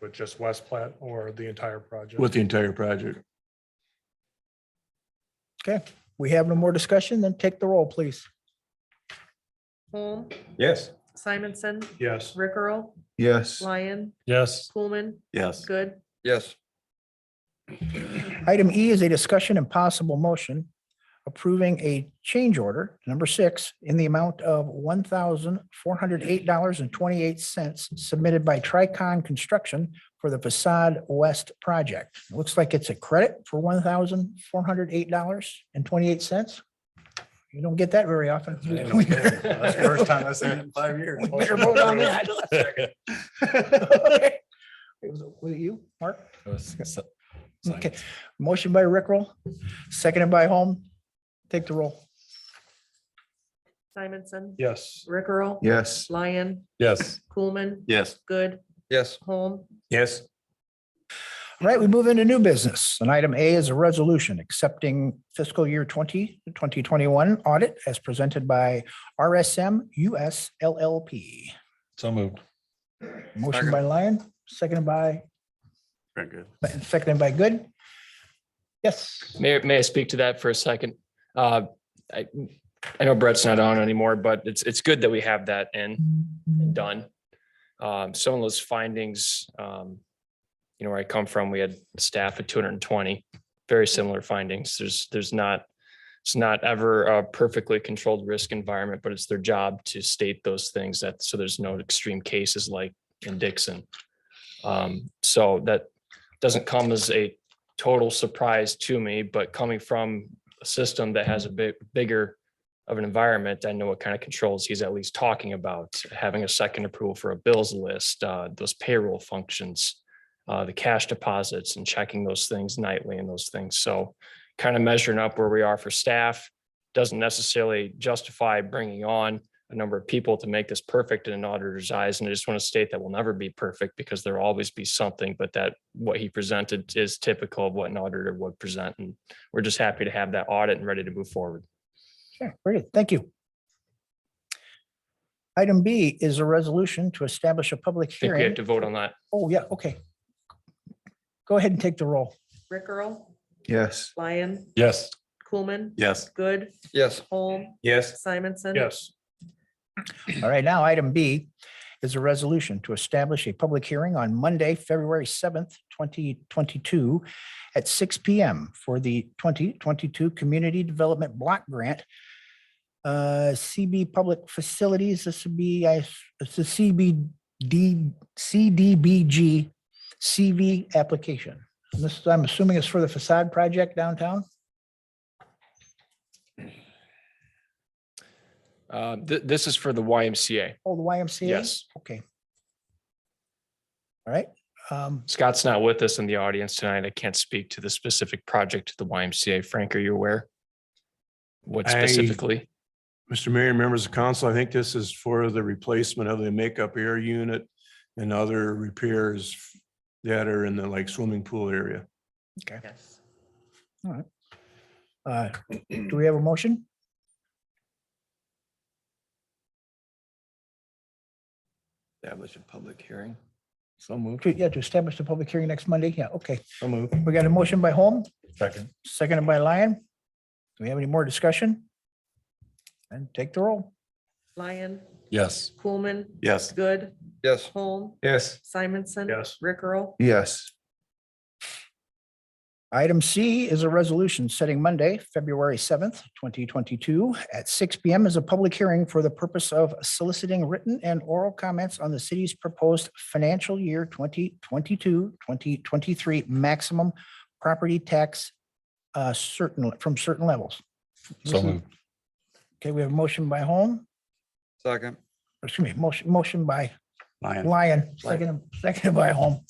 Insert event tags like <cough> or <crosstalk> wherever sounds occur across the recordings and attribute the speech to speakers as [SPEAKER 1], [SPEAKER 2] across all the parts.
[SPEAKER 1] with just West Platte or the entire project?
[SPEAKER 2] with the entire project.
[SPEAKER 3] Okay, we have no more discussion, then take the roll, please.
[SPEAKER 4] Holm,
[SPEAKER 5] Yes.
[SPEAKER 4] Simonson,
[SPEAKER 1] Yes.
[SPEAKER 4] Rick Earl,
[SPEAKER 5] Yes.
[SPEAKER 4] Lyon,
[SPEAKER 1] Yes.
[SPEAKER 4] Coolman,
[SPEAKER 5] Yes.
[SPEAKER 4] Good.
[SPEAKER 5] Yes.
[SPEAKER 3] Item E is a discussion and possible motion approving a change order, number six, in the amount of one thousand four hundred eight dollars and twenty-eight cents submitted by Tricon Construction for the facade west project. Looks like it's a credit for one thousand four hundred eight dollars and twenty-eight cents. You don't get that very often.
[SPEAKER 5] That's the first time I've seen it in five years.
[SPEAKER 3] We better vote on that. Okay. Was it- was it you, Mark? Okay, motion by Rickrell, seconded by Holm. Take the roll.
[SPEAKER 4] Simonson,
[SPEAKER 1] Yes.
[SPEAKER 4] Rick Earl,
[SPEAKER 5] Yes.
[SPEAKER 4] Lyon,
[SPEAKER 2] Yes.
[SPEAKER 4] Coolman,
[SPEAKER 5] Yes.
[SPEAKER 4] Good,
[SPEAKER 5] Yes.
[SPEAKER 4] Holm,
[SPEAKER 5] Yes.
[SPEAKER 3] All right, we move into new business. And item A is a resolution accepting fiscal year 20, 2021 audit as presented by RSM US LLP.
[SPEAKER 2] So moved.
[SPEAKER 3] Motion by Lyon, seconded by,
[SPEAKER 5] Very good.
[SPEAKER 3] seconded by Good. Yes,
[SPEAKER 6] May, may I speak to that for a second? Uh, I, I know Brett's not on anymore, but it's, it's good that we have that in, and done. Um, some of those findings, um, you know, where I come from, we had staff at two hundred and twenty, very similar findings. There's, there's not, it's not ever a perfectly controlled risk environment, but it's their job to state those things that, so there's no extreme cases like in Dixon. Um, so that doesn't come as a total surprise to me, but coming from a system that has a bit bigger of an environment, I know what kind of controls he's at least talking about, having a second approval for a bills list, uh, those payroll functions, uh, the cash deposits and checking those things nightly and those things. So kind of measuring up where we are for staff doesn't necessarily justify bringing on a number of people to make this perfect in an auditor's eyes. And I just want to state that will never be perfect because there'll always be something, but that what he presented is typical of what an auditor would present. And we're just happy to have that audit and ready to move forward.
[SPEAKER 3] Okay, very good. Thank you. Item B is a resolution to establish a public
[SPEAKER 6] I think we have
[SPEAKER 3] hearing.
[SPEAKER 6] to vote on that.
[SPEAKER 3] Oh, yeah, okay. Go ahead and take the roll.
[SPEAKER 4] Rick Earl,
[SPEAKER 5] Yes.
[SPEAKER 4] Lyon,
[SPEAKER 2] Yes.
[SPEAKER 4] Coolman,
[SPEAKER 5] Yes.
[SPEAKER 4] Good,
[SPEAKER 5] Yes.
[SPEAKER 4] Holm,
[SPEAKER 5] Yes.
[SPEAKER 4] Simonson.
[SPEAKER 1] Yes.
[SPEAKER 3] All right, now item B is a resolution to establish a public hearing on Monday, February seventh, twenty twenty-two at six P M for the twenty twenty-two Community Development Block Grant. Uh, CB Public Facilities, this would be, I, it's a CBD, CDBG CV application. And This, I'm assuming is for the facade project downtown?
[SPEAKER 6] Uh, th- this is for the YMCA.
[SPEAKER 3] Oh, the YMCA?
[SPEAKER 6] Yes.
[SPEAKER 3] Okay. All right, um,
[SPEAKER 6] Scott's not with us in the audience tonight. I can't speak to the specific project at the YMCA. Frank, are you aware? What
[SPEAKER 2] I-
[SPEAKER 6] specifically?
[SPEAKER 2] Mr. Mayor, members of council, I think this is for the replacement of the makeup air unit and other repairs that are in the like swimming pool area.
[SPEAKER 4] Yes.
[SPEAKER 5] <clears throat>
[SPEAKER 3] Uh, Do we have a motion?
[SPEAKER 5] Establish a public hearing. So moved.
[SPEAKER 3] To- Yeah, to establish the public hearing next Monday. Yeah, okay.
[SPEAKER 5] So moved.
[SPEAKER 3] We got a motion by Holm,
[SPEAKER 5] Second.
[SPEAKER 3] seconded by Lyon. Do we have any more discussion? And take the roll.
[SPEAKER 4] Lyon,
[SPEAKER 2] Yes.
[SPEAKER 4] Coolman,
[SPEAKER 5] Yes.
[SPEAKER 4] Good,
[SPEAKER 5] Yes.
[SPEAKER 4] Holm,
[SPEAKER 5] Yes.
[SPEAKER 4] Simonson.
[SPEAKER 1] Yes.
[SPEAKER 4] Rick Earl,
[SPEAKER 5] Yes.
[SPEAKER 3] Item C is a resolution setting Monday, February seventh, twenty twenty-two at six P M as a public hearing for the purpose of soliciting written and oral comments on the city's proposed financial year 2022-2023 maximum property tax uh, certain, from certain levels. This is- Okay, we have a motion by Holm,
[SPEAKER 5] Second.
[SPEAKER 3] excuse me, motion, motion by
[SPEAKER 5] Lyon.
[SPEAKER 3] Lyon, second, second by Holm.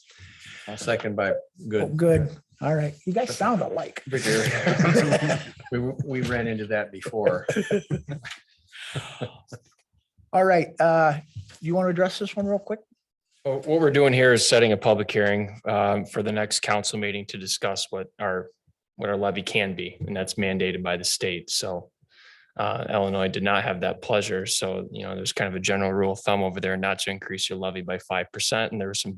[SPEAKER 5] Second by
[SPEAKER 3] Oh, Good. All right. You guys sound alike.
[SPEAKER 5] <laughs> We, we ran into that before.
[SPEAKER 3] <laughs> All right. Uh, you want to address this one real quick?
[SPEAKER 6] Well, What we're doing here is setting a public hearing um, for the next council meeting to discuss what our, what our levy can be, and that's mandated by the state. So uh, Illinois did not have that pleasure. So, you know, there's kind of a general rule of thumb over there not to increase your levy by 5%. And there were some